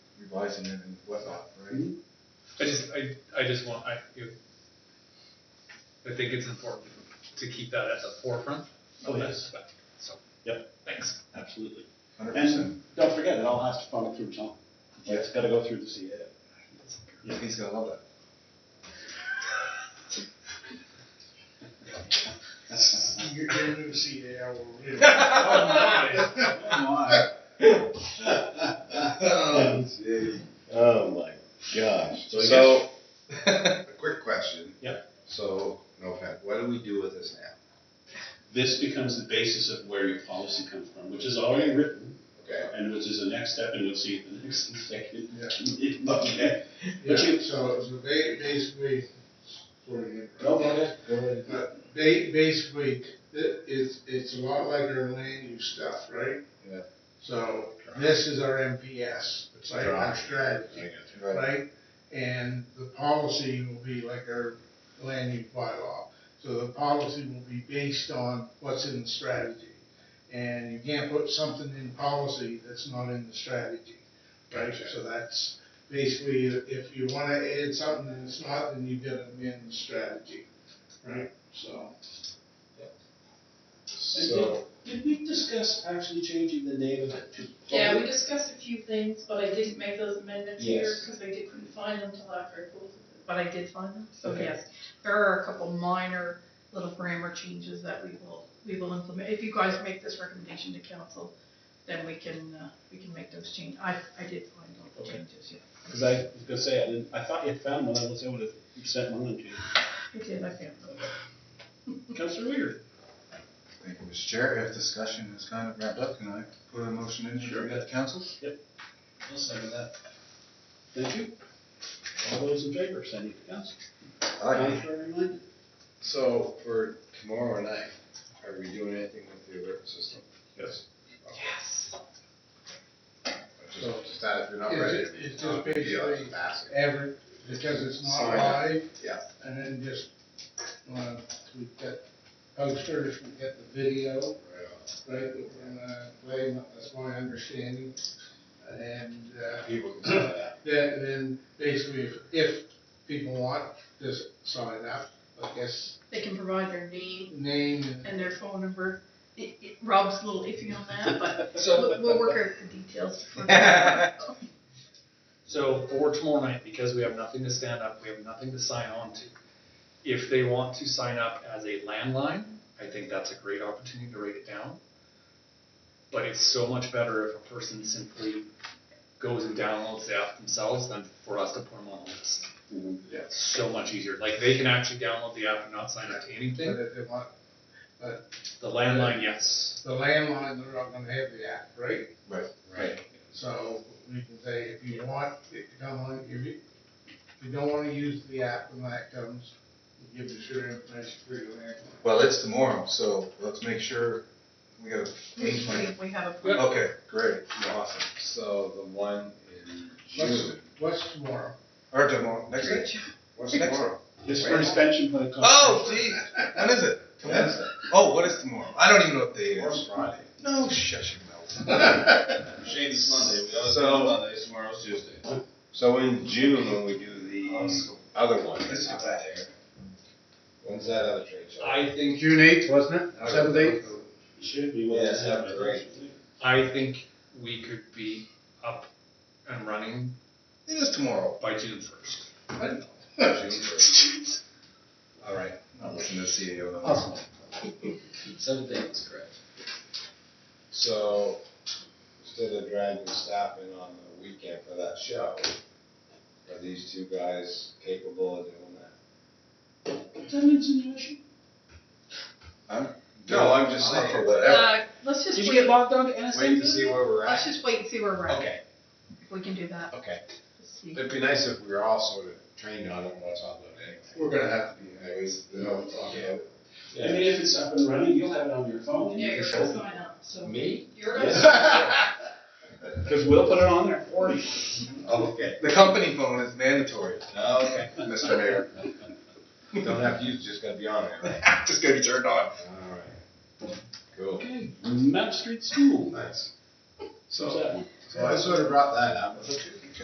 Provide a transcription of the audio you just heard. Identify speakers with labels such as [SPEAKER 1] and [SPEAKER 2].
[SPEAKER 1] Washington and whatnot,
[SPEAKER 2] Mm-hmm.
[SPEAKER 1] right?
[SPEAKER 3] Mhm.
[SPEAKER 4] I just, I, I just want, I, you- I think it's important to keep that at the forefront
[SPEAKER 3] Oh,
[SPEAKER 4] of that,
[SPEAKER 3] yes.
[SPEAKER 4] spec, so.
[SPEAKER 3] Yep.
[SPEAKER 4] Thanks.
[SPEAKER 3] Absolutely.
[SPEAKER 1] Hundred percent.
[SPEAKER 3] And don't forget, it all has to funnel through Tom.
[SPEAKER 1] Yeah.
[SPEAKER 3] It's gotta go through the CA. Yeah.
[SPEAKER 1] He's gonna love that.
[SPEAKER 5] You're going to see AL.
[SPEAKER 3] Oh,
[SPEAKER 6] Oh my gosh.
[SPEAKER 2] So I
[SPEAKER 6] So,
[SPEAKER 2] guess, a quick question.
[SPEAKER 3] Yep.
[SPEAKER 2] So, no offense, what do we do with this now?
[SPEAKER 3] This becomes the basis of where your policy comes from, which is already written,
[SPEAKER 2] Okay,
[SPEAKER 3] and which is the next step, and you'll see it in the next executive
[SPEAKER 5] Yeah.
[SPEAKER 3] meeting. Okay.
[SPEAKER 5] Yeah,
[SPEAKER 3] But you-
[SPEAKER 5] so, so ba- basically, sort of,
[SPEAKER 3] Go ahead. Go ahead.
[SPEAKER 5] uh, ba- basically, it, it's, it's a lot like our land use stuff, right?
[SPEAKER 1] Yeah.
[SPEAKER 5] So, this is our MPS, it's like our
[SPEAKER 2] Right.
[SPEAKER 5] strategy,
[SPEAKER 1] Right,
[SPEAKER 5] right? And the policy will be like our land use bylaw. So the policy will be based on what's in the strategy. And you can't put something in policy that's not in the strategy, right?
[SPEAKER 2] Gotcha.
[SPEAKER 5] So that's basically, if you wanna add something and it's not, then you gotta amend the strategy, right? So.
[SPEAKER 3] So- Did we discuss actually changing the name of it to?
[SPEAKER 7] Yeah, we discussed a few things, but I didn't make those amendments here,
[SPEAKER 3] Yes.
[SPEAKER 7] because I did, couldn't find them till after I pulled them. But I did find them, so yes, there are a couple minor little grammar changes that we will, we will implement. If you guys make this recommendation to council, then we can, uh, we can make those changes. I, I did find all the
[SPEAKER 3] Okay.
[SPEAKER 7] changes, yeah.
[SPEAKER 3] Cause I was gonna say, I didn't, I thought you had found one, I was able to send one to you.
[SPEAKER 7] I did, I found them.
[SPEAKER 3] Counselor Weir.
[SPEAKER 1] thank you, Mr. Chair, if discussion is kind of wrapped up, can I put a motion in
[SPEAKER 3] Sure.
[SPEAKER 1] for that council?
[SPEAKER 3] I'll second that. Thank you. All those in favor, send it to council. Contrary minded?
[SPEAKER 2] so for tomorrow night, are we doing anything with the alert system? Yes.
[SPEAKER 7] Yes.
[SPEAKER 2] Just, just that if you're not
[SPEAKER 5] It's-
[SPEAKER 2] ready.
[SPEAKER 5] it's just
[SPEAKER 2] not a big deal, I'm
[SPEAKER 5] basically-
[SPEAKER 2] asking.
[SPEAKER 5] Everett, because it's not
[SPEAKER 2] Sorry.
[SPEAKER 5] live.
[SPEAKER 2] Yeah.
[SPEAKER 5] And then just, uh, we've got posters, we've got the video,
[SPEAKER 2] Right on.
[SPEAKER 5] right, um, that we're gonna play, that's my understanding. And, uh,
[SPEAKER 2] People can sign up.
[SPEAKER 5] then, then basically, if, if people want, just sign up, I guess,
[SPEAKER 7] They can provide their name
[SPEAKER 5] name and.
[SPEAKER 7] and their phone number. It, it, Rob's a little iffy on that, but we'll, we'll work out the details for that.
[SPEAKER 4] So for tomorrow night, because we have nothing to stand up, we have nothing to sign on to. If they want to sign up as a landline, I think that's a great opportunity to write it down. But it's so much better if a person simply goes and downloads the app themselves than for us to put them on a list. It's so much easier. Like they can actually download the app and not sign up to anything.
[SPEAKER 5] But if they want
[SPEAKER 4] The landline, yes.
[SPEAKER 5] the landline, they're not gonna have the app, right?
[SPEAKER 1] Right.
[SPEAKER 2] Right.
[SPEAKER 5] So we can say, if you want, it to come on, if you, if you don't wanna use the app when that comes, give us your information for your landline.
[SPEAKER 1] Well, it's tomorrow, so let's make sure we got a game plan.
[SPEAKER 7] We, we have a plan.
[SPEAKER 1] Okay, great, awesome.
[SPEAKER 2] So the one in
[SPEAKER 5] What's,
[SPEAKER 2] June.
[SPEAKER 5] what's tomorrow?
[SPEAKER 1] Or tomorrow, next week? What's
[SPEAKER 2] Next-
[SPEAKER 1] tomorrow?
[SPEAKER 3] This for extension by the.
[SPEAKER 1] Oh, geez, when is it? Wednesday. Oh, what is tomorrow? I don't even know what day it
[SPEAKER 2] Tomorrow's
[SPEAKER 1] is.
[SPEAKER 2] Friday.
[SPEAKER 1] No, shut your mouth.
[SPEAKER 2] Shane's Monday, we
[SPEAKER 6] always
[SPEAKER 2] so,
[SPEAKER 6] do
[SPEAKER 2] Monday, tomorrow's Tuesday. So in June, when we do the other one.
[SPEAKER 1] This is bad.
[SPEAKER 2] When's that other trade show?
[SPEAKER 4] I think
[SPEAKER 5] June eighth, wasn't
[SPEAKER 1] Seventh, eighth?
[SPEAKER 3] Should be what
[SPEAKER 2] Yeah,
[SPEAKER 3] is
[SPEAKER 2] that'd
[SPEAKER 3] happening.
[SPEAKER 2] be great.
[SPEAKER 4] I think we could be up and running
[SPEAKER 1] It is tomorrow.
[SPEAKER 4] by June first.
[SPEAKER 2] June first.
[SPEAKER 1] All right, I'll listen to CEO. then.
[SPEAKER 3] Awesome.
[SPEAKER 2] So, instead of dragging staff in on the weekend for that show, are these two guys capable of doing that?
[SPEAKER 3] Is that an insinuation?
[SPEAKER 2] No, I'm just
[SPEAKER 1] I'll
[SPEAKER 2] saying,
[SPEAKER 1] for whatever.
[SPEAKER 7] Uh, let's just
[SPEAKER 3] Did you
[SPEAKER 7] wait,
[SPEAKER 3] get logged on to NSA?
[SPEAKER 2] wait to see where we're
[SPEAKER 7] let's
[SPEAKER 2] at.
[SPEAKER 7] just wait and see where we're at,
[SPEAKER 2] Okay,
[SPEAKER 7] if we can do that,
[SPEAKER 2] okay.
[SPEAKER 7] Let's see.
[SPEAKER 2] It'd be nice if we were all sort of trained on it once on
[SPEAKER 5] We're gonna have to be.
[SPEAKER 2] the day. Anyways, you know, talking
[SPEAKER 3] I mean, if it's up and running, you'll have it on your phone.
[SPEAKER 7] Yeah, you're gonna sign up, so.
[SPEAKER 2] about. Me? Oh,
[SPEAKER 7] You're gonna.
[SPEAKER 2] Yes.
[SPEAKER 3] Cause we'll put it on there for you.
[SPEAKER 2] Okay, Oh,
[SPEAKER 1] The company phone is mandatory,
[SPEAKER 2] okay.
[SPEAKER 1] Mr. Mayor.
[SPEAKER 2] Don't have to use, it, just gotta be on there, right?
[SPEAKER 1] Just gotta be turned on.
[SPEAKER 2] Alright. Cool.
[SPEAKER 3] Okay, Map Street School.
[SPEAKER 2] Nice.
[SPEAKER 3] What's
[SPEAKER 2] So,
[SPEAKER 3] that one?
[SPEAKER 2] so I sort of brought that up.